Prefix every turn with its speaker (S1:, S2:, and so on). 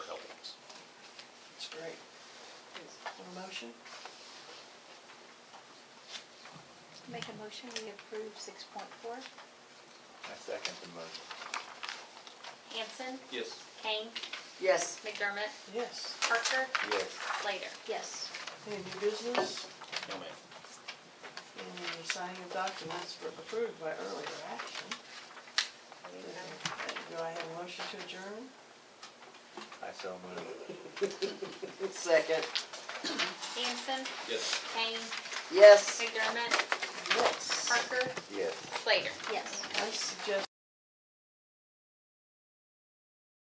S1: motion?
S2: Make a motion, we approve six point four.
S3: I second the motion.
S4: Hanson,
S1: Yes.
S4: Kane,
S5: Yes.
S4: McDermott,
S6: Yes.
S4: Parker,
S3: Yes.
S4: Slater.
S2: Yes.
S6: Any new business?
S1: No, ma'am.
S6: Any signing of documents were approved by earlier action? Do I have a motion to adjourn?
S3: I so move.
S5: Second.
S4: Hanson,
S1: Yes.
S4: Kane,
S5: Yes.
S4: McDermott,
S6: Yes.
S4: Parker,
S3: Yes.
S4: Slater.
S2: Yes.
S6: I suggest